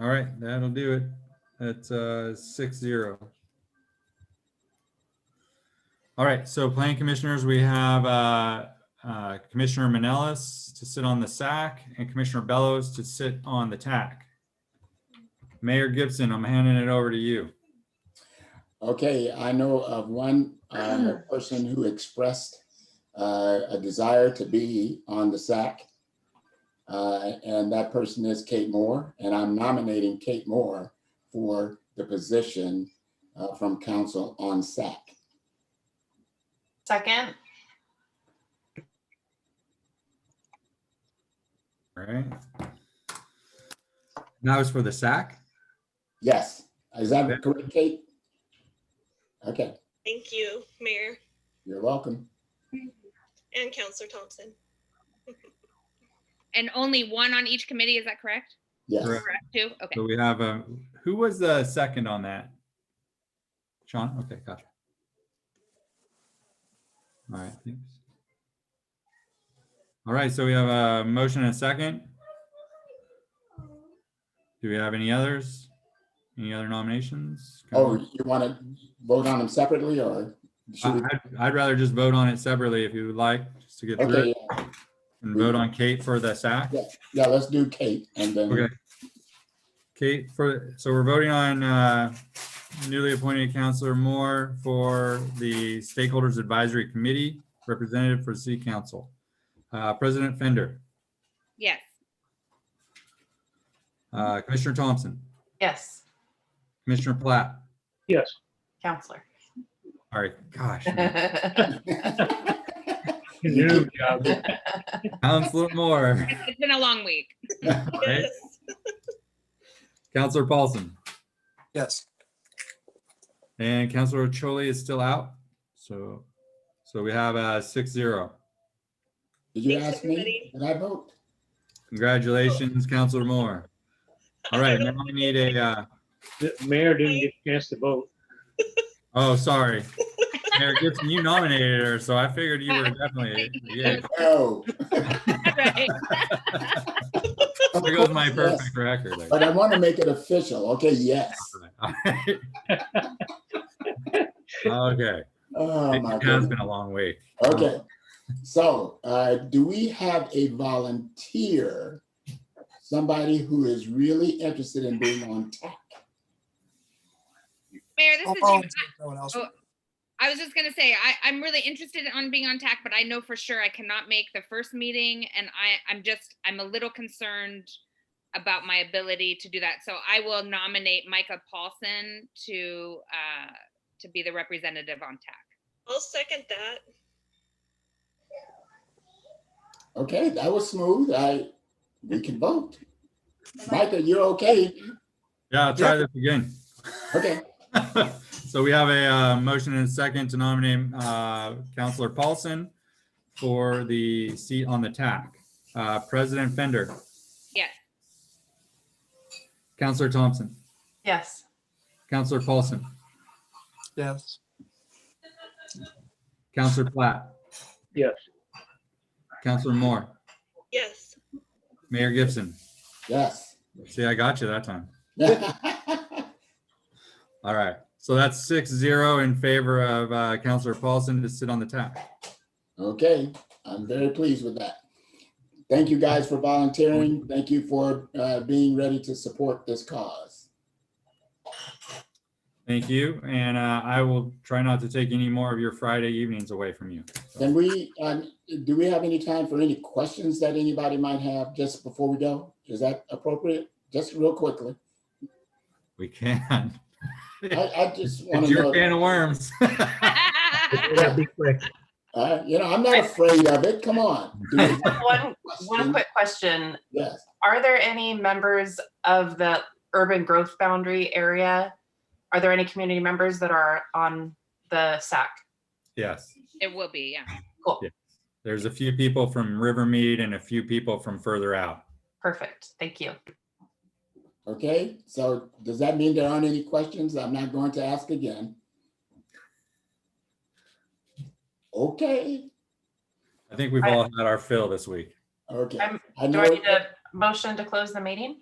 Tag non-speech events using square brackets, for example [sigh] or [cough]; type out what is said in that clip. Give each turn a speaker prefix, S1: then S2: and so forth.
S1: All right, that'll do it. That's uh six zero. All right, so plan commissioners, we have uh uh, Commissioner Manelis to sit on the SAC and Commissioner Bellows to sit on the TAC. Mayor Gibson, I'm handing it over to you.
S2: Okay, I know of one um, person who expressed uh, a desire to be on the SAC. uh, And that person is Kate Moore, and I'm nominating Kate Moore for the position uh, from council on SAC.
S3: Second,
S1: All right. That was for the SAC?
S2: Yes, is that correct, Kate? Okay,
S4: Thank you, Mayor
S2: you're welcome.
S4: and Counselor Thompson.
S5: And only one on each committee, is that correct?
S2: Yes,
S1: Correct.
S5: Correct, two, okay.
S1: So we have, uh, who was the second on that? Sean, okay, gotcha. All right, thanks. All right, so we have a motion and a second. Do we have any others? Any other nominations?
S2: oh, you want to vote on them separately or? should
S1: I-
S2: we-
S1: I'd I'd rather just vote on it separately if you would like, just to get through
S2: Okay,
S1: it
S2: yeah,
S1: and vote on Kate for the SAC.
S2: yeah, let's do Kate and then.
S1: Okay. Kate, for, so we're voting on uh, newly appointed Counselor Moore for the Stakeholders Advisory Committee, representative for City Council. Uh, President Fender,
S5: Yes,
S1: uh, Commissioner Thompson,
S3: yes,
S1: Commissioner Platt.
S6: Yes.
S3: Counselor.
S1: All right, gosh,
S6: New job.
S1: Counselor Moore,
S5: it's it's been a long week. [laughs]
S1: Right.
S4: Yes.
S1: Counselor Paulson,
S7: Yes.
S1: and Counselor Choli is still out. So, so we have a six zero.
S2: Did you
S4: Thanks,
S2: ask me?
S4: everybody.
S2: Did I vote?
S1: Congratulations, Counselor Moore. All right, now we need a, uh,
S6: The mayor didn't get a chance to vote.
S1: Oh, sorry. Mayor Gibson, you nominated her, so I figured you were definitely,
S2: [laughs]
S1: yeah,
S2: Oh,
S5: Right.
S1: [laughs] there goes my
S2: Yes.
S1: perfect record.
S2: But I want to make it official. Okay, yes.
S1: Alright. [laughs] Okay,
S2: [laughs] Oh, my
S1: it has
S2: goodness.
S1: been a long week.
S2: Okay. So, uh, do we have a volunteer? Somebody who is really interested in being on TAC?
S5: Mayor, this
S7: I'll
S5: is you.
S7: volunteer if no one else-
S5: Oh. I was just gonna say, I, I'm really interested on being on TAC, but I know for sure I cannot make the first meeting and I, I'm just, I'm a little concerned about my ability to do that. So I will nominate Micah Paulson to, uh, to be the representative on TAC.
S4: I'll second that.
S2: Okay, that was smooth. I, we can vote. Micah, you're okay?
S1: Yeah, I'll try this again. [laughs]
S2: Okay,
S1: So we have a uh, motion and a second to nominate uh, Counselor Paulson for the seat on the TAC. Uh, President Fender,
S5: Yes,
S1: Counselor Thompson,
S3: Yes,
S1: Counselor Paulson,
S7: Yes.
S1: Counselor Platt,
S6: Yes.
S1: Counselor Moore,
S4: Yes.
S1: Mayor Gibson.
S2: yes. [laughs]
S1: See, I got you that time.
S2: All
S1: All right. So that's six zero in favor of uh, Counselor Paulson to sit on the TAC.
S2: Okay, I'm very pleased with that. Thank you guys for volunteering. Thank you for uh, being ready to support this cause.
S1: Thank you. And uh, I will try not to take any more of your Friday evenings away from you.
S2: Can we, um, do we have any time for any questions that anybody might have just before we go? Is that appropriate? Just real quickly.
S1: We
S2: [laughs]
S1: can.
S2: I, I just want
S1: It's
S2: to
S1: your
S2: know.
S1: can of worms. [laughs]
S6: That'd be quick.
S2: Uh, You know, I'm not afraid of it. Come on. Do we have
S3: [laughs] one,
S2: a
S3: one
S2: question?
S3: quick question.
S2: Yes,
S3: Are there any members of the urban growth boundary area? Are there any community members that are on the SAC?
S1: Yes.
S5: [laughs] it will be, yeah.
S1: There's a few people from Rivermead and a few people from further out.
S3: Perfect, thank you.
S2: okay. So does that mean there aren't any questions? I'm not going to ask again. Okay,
S1: I think we've all had our fill this week.
S2: okay.
S3: I'm- uh,
S2: I
S3: Do I
S2: know,
S3: need a motion to close the meeting?